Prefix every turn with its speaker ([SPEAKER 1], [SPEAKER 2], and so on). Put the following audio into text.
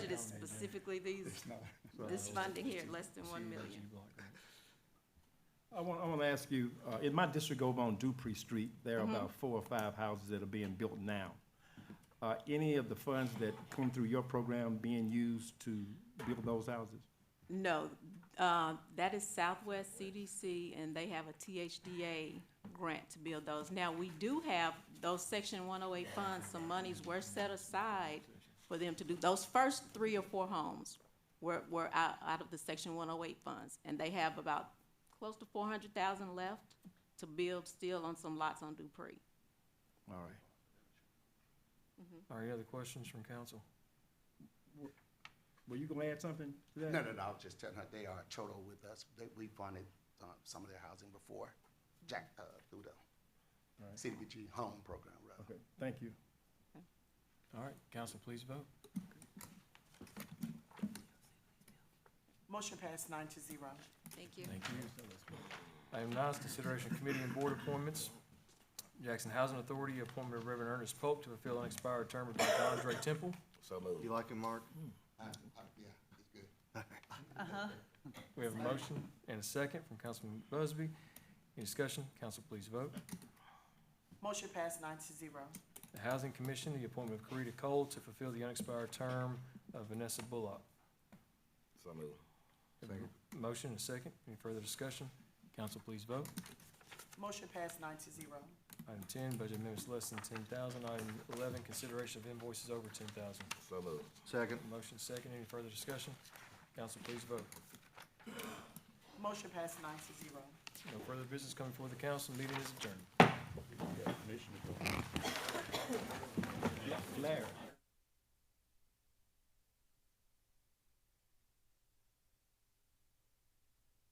[SPEAKER 1] specifically these,
[SPEAKER 2] It's not.
[SPEAKER 1] this funding here, less than one million.
[SPEAKER 3] I want, I want to ask you, uh, in my district over on Dupree Street, there are about four or five houses that are being built now. Are any of the funds that come through your program being used to build those houses?
[SPEAKER 1] No, uh, that is Southwest CDC, and they have a THDA grant to build those. Now, we do have those section one oh eight funds, some monies were set aside for them to do, those first three or four homes were, were out, out of the section one oh eight funds, and they have about close to four hundred thousand left to build still on some lots on Dupree.
[SPEAKER 3] All right.
[SPEAKER 4] Are there other questions from council?
[SPEAKER 3] Were you going to add something to that?
[SPEAKER 5] No, no, no, I was just telling her, they are total with us, they, we funded, uh, some of their housing before, Jack, uh, through the
[SPEAKER 3] Right.
[SPEAKER 5] CDBG home program, rather.
[SPEAKER 3] Okay, thank you.
[SPEAKER 4] All right, council, please vote.
[SPEAKER 6] Motion passed nine to zero.
[SPEAKER 1] Thank you.
[SPEAKER 4] Thank you. Item nine is consideration of committee and board appointments. Jackson Housing Authority, appointment of Reverend Ernest Pope to fulfill an expired term of Dr. Andre Temple.
[SPEAKER 7] You like him, Mark?
[SPEAKER 3] Hmm.
[SPEAKER 5] Uh, uh, Yeah, it's good.
[SPEAKER 4] We have a motion and a second from Councilman Busby. Any discussion? Council, please vote.
[SPEAKER 6] Motion passed nine to zero.
[SPEAKER 4] The Housing Commission, the appointment of Karita Cole to fulfill the unexpired term of Vanessa Bullock.
[SPEAKER 7] So moved.
[SPEAKER 4] Motion and a second. Any further discussion? Council, please vote.
[SPEAKER 6] Motion passed nine to zero.
[SPEAKER 4] Item ten, budget amendments less than ten thousand. Item eleven, consideration of invoices over ten thousand.
[SPEAKER 7] So moved. Second.
[SPEAKER 4] Motion second, any further discussion? Council, please vote.
[SPEAKER 6] Motion passed nine to zero.
[SPEAKER 4] No further business coming before the council, meeting is adjourned.
[SPEAKER 3] Larry.